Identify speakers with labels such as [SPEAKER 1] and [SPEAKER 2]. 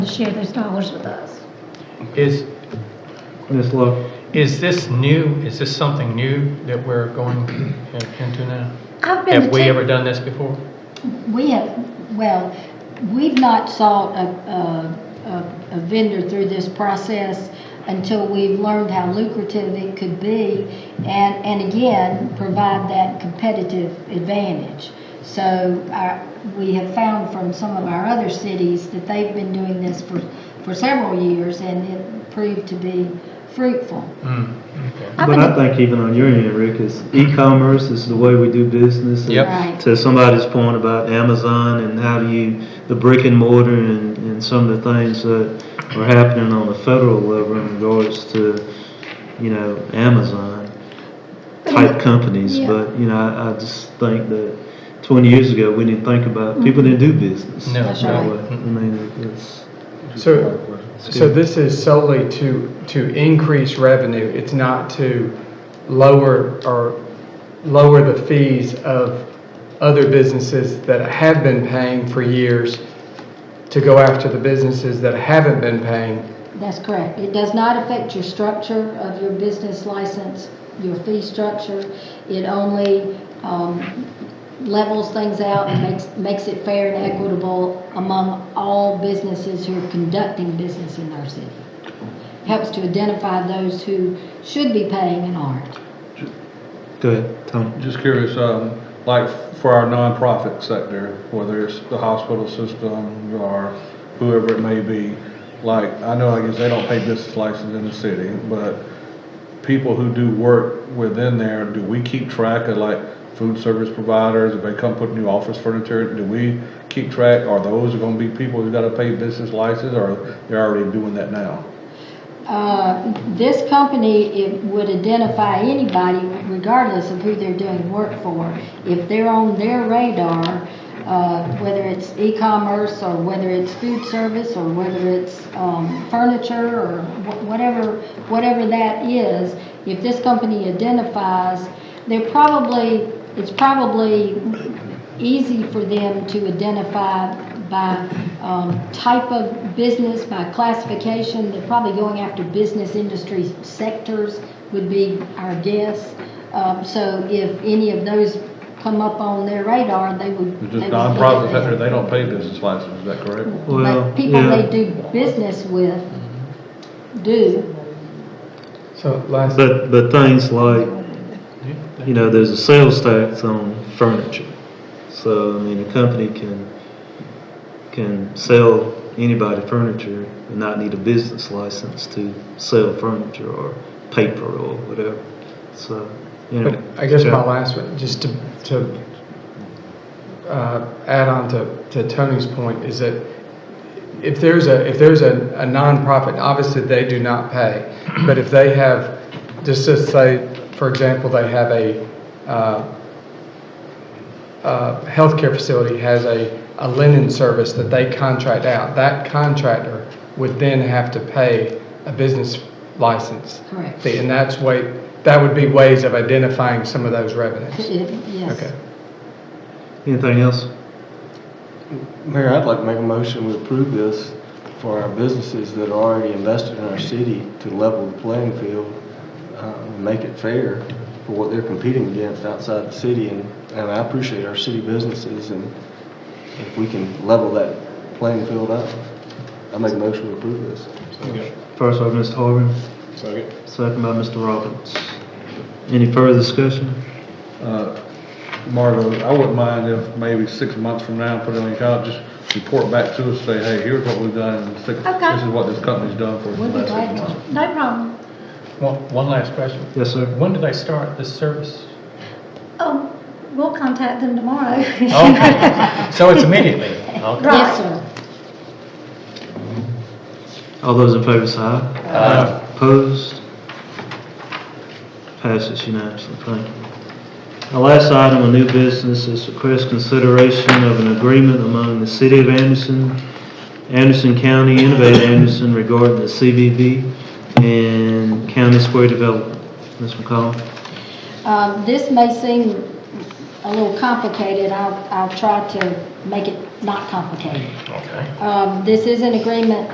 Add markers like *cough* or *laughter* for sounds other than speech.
[SPEAKER 1] share those dollars with us.
[SPEAKER 2] Is,
[SPEAKER 3] Ms. Love,
[SPEAKER 2] is this new, is this something new that we're going in- into now?
[SPEAKER 1] I've been.
[SPEAKER 2] Have we
[SPEAKER 1] atten-
[SPEAKER 2] ever done this before?
[SPEAKER 4] We have, well, we've not sought a, a- a, a vendor through this process until we've learned how lucrative it could be and, and again, provide that competitive advantage. So our, we have found from some of our other cities that they've been doing this for, for several years and it proved to be fruitful.
[SPEAKER 2] Hmm, okay.
[SPEAKER 1] I've
[SPEAKER 3] but I
[SPEAKER 1] been,
[SPEAKER 3] think even on your end, Rick, is e-commerce is the way we do business. and
[SPEAKER 2] Yep.
[SPEAKER 4] Right.
[SPEAKER 3] To somebody's point about Amazon and how do you, the brick and mortar and, and some of the things that are happening on the federal level in regards to, you know, Amazon type companies.
[SPEAKER 1] Yeah.
[SPEAKER 3] But, you know, I, I just think that twenty years ago, we didn't think
[SPEAKER 1] Mm-hmm.
[SPEAKER 3] about, people didn't do business.
[SPEAKER 2] No,
[SPEAKER 4] That's
[SPEAKER 3] that
[SPEAKER 4] right.
[SPEAKER 3] way. I mean, it's,
[SPEAKER 5] So, so this is solely to, to increase revenue, it's not to lower or lower the fees of other businesses that have been paying for years to go after the businesses that haven't been paying.
[SPEAKER 4] That's correct. It does not affect your structure of your business license, your fee structure. It only um, levels things out and makes, makes it fair and equitable among all businesses who are conducting business in our city. Helps to identify those who should be paying and aren't.
[SPEAKER 3] go ahead, Tom.
[SPEAKER 6] Just curious, um, like for our nonprofit sector, whether it's the hospital system or whoever it may be, like, I know, I guess they don't pay business license in the city, but people who do work within there, do we keep track of like food service providers, if they come put new office furniture, do we keep track, are those gonna be people who gotta pay business license, or they're already doing that now?
[SPEAKER 4] Uh, This company, it would identify anybody regardless of who they're doing work for. If they're on their radar, uh, whether it's e-commerce or whether it's food service or whether it's um, furniture or wh- whatever, whatever that is, if this company identifies, they're probably, it's probably easy for them to identify by um, type of business, by classification. They're probably going after business industry sectors would be our guess. Um, So if any of those come up on their radar, they would.
[SPEAKER 6] It's
[SPEAKER 4] they would look
[SPEAKER 6] just
[SPEAKER 4] at
[SPEAKER 6] nonprofit
[SPEAKER 4] them.
[SPEAKER 6] sector, they don't pay business license, is that correct?
[SPEAKER 3] Well,
[SPEAKER 4] But people
[SPEAKER 3] yeah.
[SPEAKER 4] they do business with do.
[SPEAKER 5] So last,
[SPEAKER 3] But, but things like, you know, there's a sales tax on furniture. So, I mean, a company can, can sell anybody furniture and not need a business license to sell furniture or paper or whatever. So, you
[SPEAKER 5] but
[SPEAKER 3] know.
[SPEAKER 5] I guess my last one, just to, to uh, add on to, to Tony's point, is that if there's a, if there's a a nonprofit, obviously they do not pay, but if they have, just to say, for example, they have a, uh, uh, healthcare facility has a, a linen service that they contract out, that contractor would then have to pay a business license.
[SPEAKER 4] Correct.
[SPEAKER 5] fee, And that's way, that would be ways of identifying some of those revenues.
[SPEAKER 4] It- Yes.
[SPEAKER 5] Okay.
[SPEAKER 3] Anything else?
[SPEAKER 7] Mayor, I'd like to make a motion to approve this for our businesses that are already invested in our city to level the playing field, uh, and make it fair for what they're competing against outside the city. And and I appreciate our city businesses, and if we can level that playing field up, I make a motion to approve this.
[SPEAKER 3] First by Mr. Harvin. Second. Second by Mr. Robbins. Any further discussion?
[SPEAKER 6] Uh, Margo, I wouldn't mind if maybe six months from now, put it on your calendar, just report back to us, say, hey, here's what we've done, in six,
[SPEAKER 1] Okay.
[SPEAKER 6] this is what this company's done for the
[SPEAKER 4] We'd be
[SPEAKER 6] last
[SPEAKER 4] glad
[SPEAKER 6] six
[SPEAKER 4] to.
[SPEAKER 6] months.
[SPEAKER 1] no problem.
[SPEAKER 2] One, one last question.
[SPEAKER 3] Yes, sir.
[SPEAKER 2] When do they start this service?
[SPEAKER 1] Oh, we'll contact them tomorrow.
[SPEAKER 2] Oh.
[SPEAKER 1] *laughs*
[SPEAKER 2] Okay. So it's immediately? Okay.
[SPEAKER 4] Yes, sir.
[SPEAKER 3] All those in favor say aye.
[SPEAKER 2] Uh,
[SPEAKER 3] Opposed? Passes unanimously, thank you. The last item of new business is request consideration of an agreement among the City of Anderson, Anderson County, Innovative Anderson regarding the CVB and County Square Development. Ms. McCollum?
[SPEAKER 4] Um, This may seem a little complicated. I'll I'll try to make it not complicated.
[SPEAKER 2] Okay.
[SPEAKER 4] Um, This is an agreement